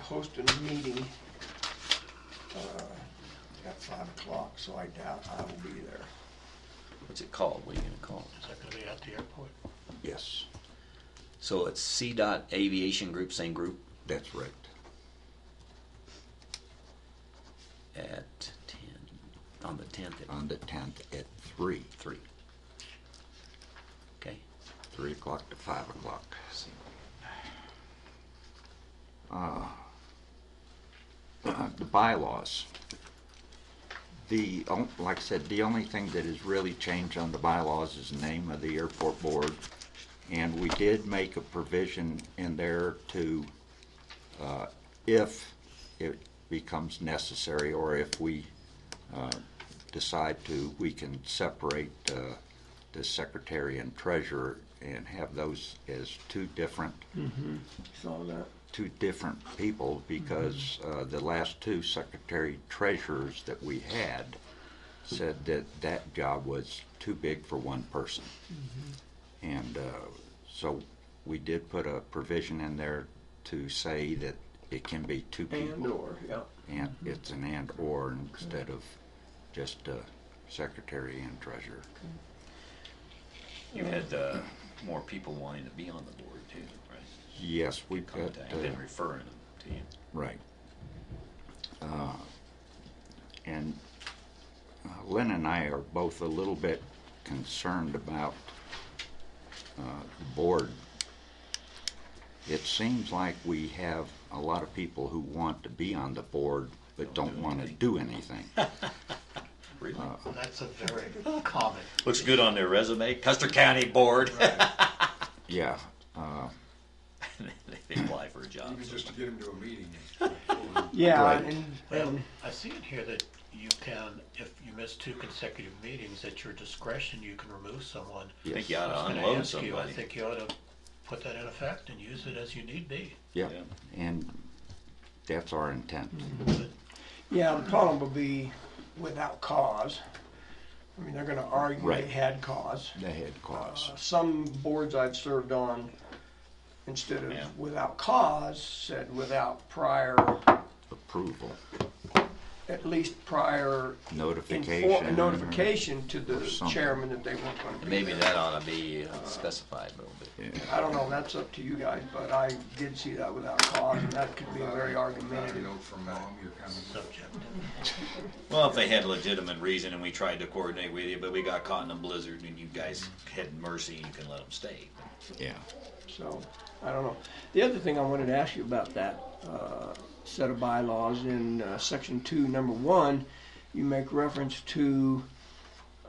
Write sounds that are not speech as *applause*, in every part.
host a meeting uh, at five o'clock, so I doubt I will be there. What's it called? What are you gonna call it? Is that gonna be at the airport? Yes, So it's C. Dot Aviation Group, same group, that's right. at ten, on the tenth at On the tenth at three, three. Okay, three o'clock to five o'clock. see. Uh, The bylaws. The, on- like I said, the only thing that has really changed on the bylaws is the name of the airport board. And we did make a provision in there to, uh, if it becomes necessary or if we uh, decide to, we can separate uh, the secretary and treasurer and have those as two different Saw that. two different people because Mm-hmm. uh, the last two secretary treasurers that we had said that that job was too big for one person. Mm-hmm. And uh, so we did put a provision in there to say that it can be two people. And or, Mm-hmm. yeah. And it's an and or instead of just uh, secretary and treasurer. You had, uh, more people wanting to be on the board too, right? Yes, we've got. Contacted uh, and referring them to you. Right. Uh, And uh, Lynn and I are both a little bit concerned about uh, the board. It seems like we have a lot of people who want to be on the board but don't want to do anything. *laughs* Really? That's a very common. Looks good on their resume, Custer County Board. Yeah, *laughs* They apply for a job. Even just to get him to a meeting. Yeah, Right. and, Well, and I see it here that you can, if you miss two consecutive meetings, at your discretion, you can remove someone. I yes, think you ought I was to gonna unload ask you, I somebody. think you ought to put that in effect and use it as you need be. yeah, Mm-hmm. Yeah. and that's our intent. yeah, the problem will be without cause. I mean, they're going to argue they Right. had cause. The head clause. Uh, Some boards I've served on, instead Yeah. of without cause, said without prior, Approval, at least prior notification. infor- notification to the or something. chairman that they weren't going to be Maybe there. that ought to be uh, specified a little bit. Yeah. I don't know, that's up to you guys, but I did see that without cause, and that could be a very You argumentative. know, from mom, you're coming. Subject. Well, if they had legitimate reason and we tried to coordinate with you, but we got caught in a blizzard and you guys had mercy, you can let them stay. Yeah. So, I don't know. The other thing I wanted to ask you about that uh, set of bylaws in uh, section two, number one, you make reference to,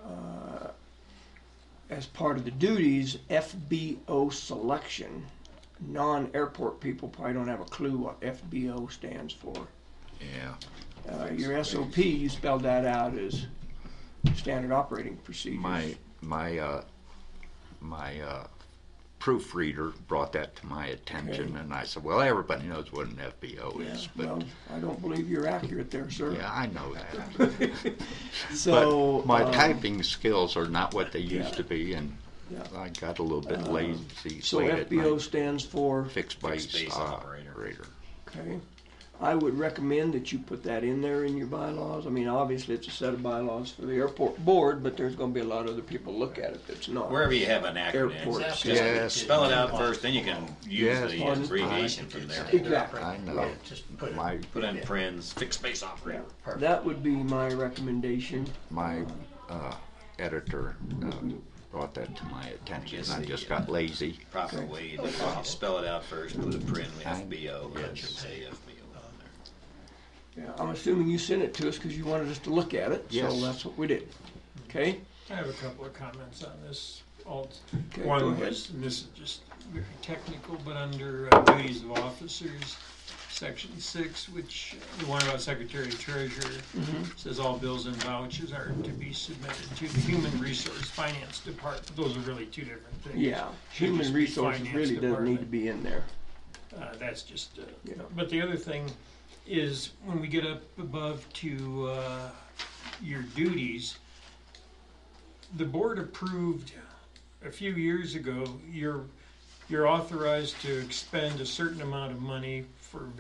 uh, as part of the duties, FBO selection. Non-airport people probably don't have a clue what FBO stands for. Yeah. Uh, Your SOP, you spelled that out as standard operating procedures. My my uh, my uh, proofreader brought that to my attention, Okay. and I said, "Well, everybody knows what an FBO Yeah, is, but well, I don't believe you're accurate there, sir. yeah, I know *laughs* that. So. but my um, typing skills are not what they used yeah. to be, and Yeah. Uh, I got a little bit lazy So late at FBO night. stands for, Fixed base, Fixed base operator. operator. okay, I would recommend that you put that in there in your bylaws. I mean, obviously, it's a set of bylaws for the airport board, but there's gonna be a lot of other people look at it that's not. Wherever you have an acronym, Airport. just Yes. spell it out first, then you can use Yes. the abbreviation from there. Exactly. I know. Just put it. My Put in Prin's fixed base Yeah, operator. That would be my recommendation. my uh, editor uh, brought that to my attention. guess I the, just uh, got lazy. Proper way to spell it out first, put a Prin, FBO, let your Yes. say FBO on there. Yeah, I'm assuming you sent it to us because you wanted us to look at it, so Yes. that's what we did, okay? I have a couple of comments on this. alt. Okay, go One ahead. was, and this is just very technical, but under uh, duties of officers, section six, which, uh, the one about secretary and treasurer, Mm-hmm. says all bills and vouchers are to be submitted to the human resource finance department. Those are really two different things. Yeah, Should human just be resources finance really doesn't need to department. be in there. Uh, that's just, uh, Yeah. But the other thing is when we get up above to uh, your duties, the board approved a few years ago, you're, you're authorized to expend a certain amount of money for